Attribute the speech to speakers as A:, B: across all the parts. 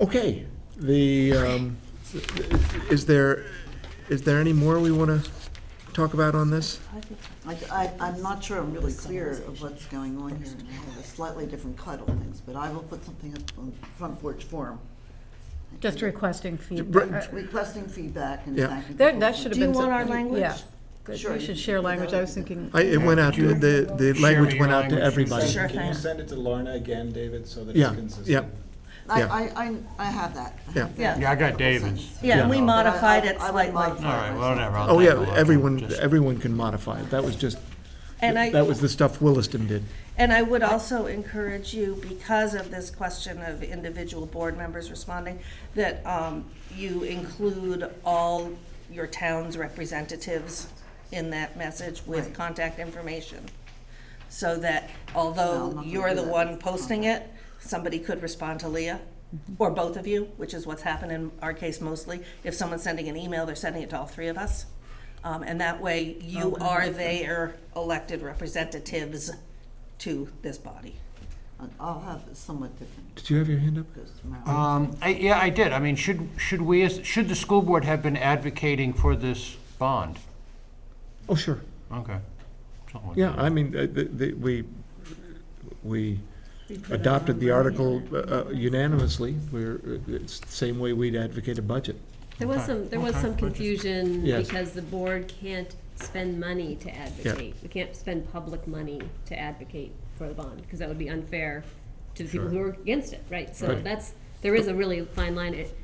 A: Okay, the, um, is there, is there any more we want to talk about on this?
B: I, I, I'm not sure I'm really clear of what's going on here, and I have a slightly different cut on things, but I will put something up on Front Porch Forum.
C: Just requesting
A: Br-
C: feedback. Uh,
B: Requesting feedback and
A: Yeah.
B: thanking.
C: That,
B: people
C: that
B: for-
C: should have
D: Do you
C: been.
D: want
C: some-
D: our language?
C: Yeah, good,
B: Sure.
C: we should share language, I was thinking.
A: I, it went out, to- the, the
E: Share
A: language
E: me
A: went
E: your
A: out to
E: language.
A: everybody.
D: Sure.
F: Can
D: thing.
F: you send it to Lorna again, David, so that
A: Yeah,
F: it's consistent?
B: I,
A: Yeah.
B: I, I, I have that. I have
A: Yeah.
B: that
D: Yeah.
E: Yeah, I got
B: couple
E: David's.
B: sentences.
D: Yeah, and we
E: Yeah.
D: modified
B: But I-
D: it
B: I would
D: slightly.
B: modify
E: All right, well, whatever. I'll
A: Oh,
E: take a
A: yeah,
E: look.
A: everyone,
E: Just-
A: everyone can modify it. That was just,
D: And
A: that
D: I,
A: was the stuff Williston did.
D: and I would also encourage you, because of this question of individual board members responding, that um, you include all your town's representatives in that message with
B: Right.
D: contact information. So
B: No,
D: that
B: I'm
D: although
B: not gonna
D: you're
B: do
D: the
B: that.
D: one posting it, somebody could respond to Leah,
B: Mm-hmm.
D: or both of you, which is what's happened in our case mostly. If someone's sending an email, they're sending it to all three of us. Um, and that way,
B: Oh,
D: you are their elected representatives to this body.
B: I'll have it somewhat different,
A: Did you have your hand up?
B: because tomorrow.
E: Um, I, yeah, I did. I mean, should, should we, as- should the school board have been advocating for this bond?
A: Oh, sure.
E: Okay. Something like
A: Yeah,
E: that.
A: I mean, uh, the, the, we, we adopted the article uh, unanimously. We're, uh, it's the same way we'd advocate a budget.
G: There was some, there was some confusion
A: Yes.
G: because the board can't spend money to advocate. We can't spend public money to advocate for the bond, because that would be unfair to the people who are against it, right? So
A: Right.
G: that's, there is a really fine line. It-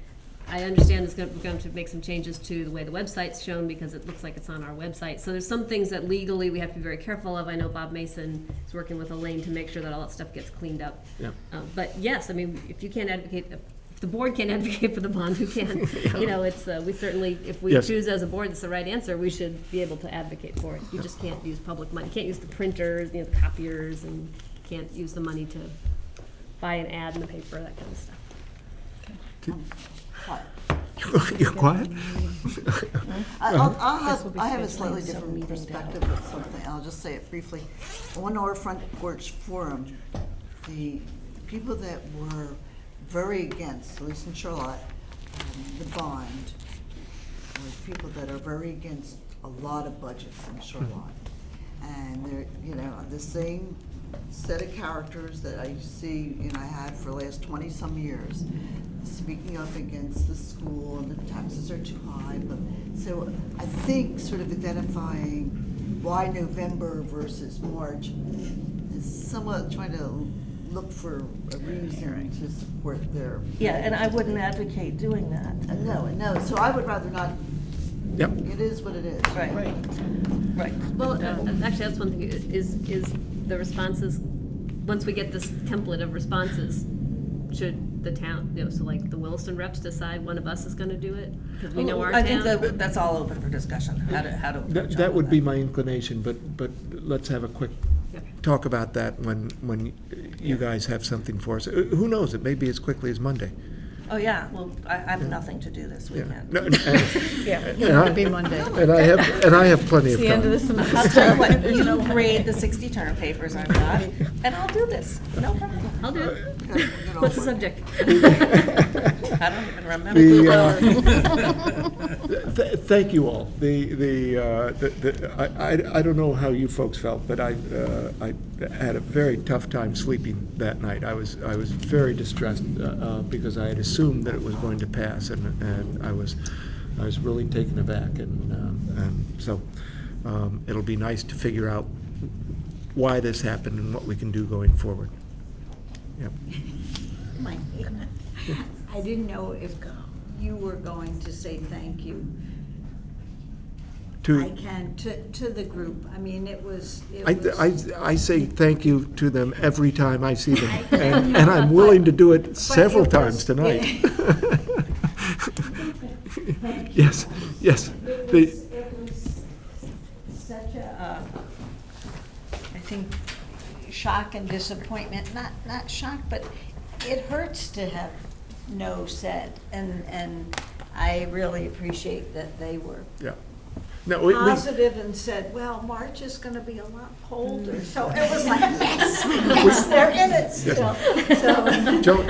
G: I understand it's gonna- we're going to make some changes to the way the website's shown, because it looks like it's on our website. So there's some things that legally we have to be very careful of. I know Bob Mason is working with Elaine to make sure that all that stuff gets cleaned up.
A: Yeah.
G: Uh, But yes, I mean, if you can't advocate, if the board can't advocate for the bond, who can? You know, it's, uh, we certainly, if we
A: Yes.
G: choose as a board that's the right answer, we should be able to advocate for it. You just can't use public money, you can't use the printers, you know, the copiers, and can't use the money to buy an ad in the paper, that kind of stuff.
B: But
A: You're quiet?
B: I- I'll, I'll have,
G: be
B: I have a
G: scheduling
B: slightly
G: some
B: different
G: meeting to
B: perspective of something, I'll just say it briefly. On our front porch forum, the the people that were very against, at least in Charlotte, um, the bond, were people that are very against a lot of budgets in Charlotte. And they're, you know, the same set of characters that I see, and I had for the last twenty-some years, speaking up against the school and the taxes are too high, but, so I think sort of identifying why November versus March is somewhat trying to look for a reason to support their.
D: Yeah, and I wouldn't advocate doing that.
B: No, no, so I would rather not,
A: Yep.
B: it is what it is.
D: Right. Right.
G: Well, uh, actually, that's one thing, i- is, is the responses, once we get this template of responses, should the town, you know, so like the Williston reps decide one of us is gonna do it? Because we know our
D: Oh, I
G: town.
D: think that, that's all open for discussion, how to, how to.
A: That,
D: approach all
A: that
D: of
A: would be my inclination, but, but let's have a quick
G: Okay.
A: talk about that when, when you guys have something for us. Uh, Who knows, it may be as quickly as Monday.
D: Oh, yeah, well, I, I have nothing to do this
A: Yeah.
D: weekend.
A: No, and- and-
C: Yeah, it
A: Yeah.
C: would be Monday.
A: And I have, and I have plenty of
C: The end of the
A: time.
D: I'll
C: semester.
D: tell you what, you grade the sixty term papers I've got, and I'll do this, no problem.
G: I'll do it.
B: Okay, we can all
G: What's the
B: work.
G: subject?
D: I don't even remember.
A: The, uh, th- Thank you all. The, the, uh, the- the, I, I- I don't know how you folks felt, but I, uh, I had a very tough time sleeping that night. I was, I was very distressed uh, uh, because I had assumed that it was going to pass, and, and I was, I was really taken aback. And, um, and so um, it'll be nice to figure out why this happened and what we can do going forward. Yep.
H: Mike, I didn't know if you were going to say thank you.
A: To-
H: I can, to, to the group. I mean, it was, it
A: I, I,
H: was.
A: I say thank you to them every time I see them,
H: I-
A: and, and I'm willing to do it several
H: it
A: times
H: was-
A: tonight. Yes, yes,
H: It
A: the-
H: was, it was such a, uh, I think, shock and disappointment, not, not shock, but it hurts to have no said. And, and I really appreciate that they were
A: yeah. No, we, we,
H: positive and said, well, March is gonna be a lot colder, so it was like, yes, yes, they're in it still, so.
A: Joan,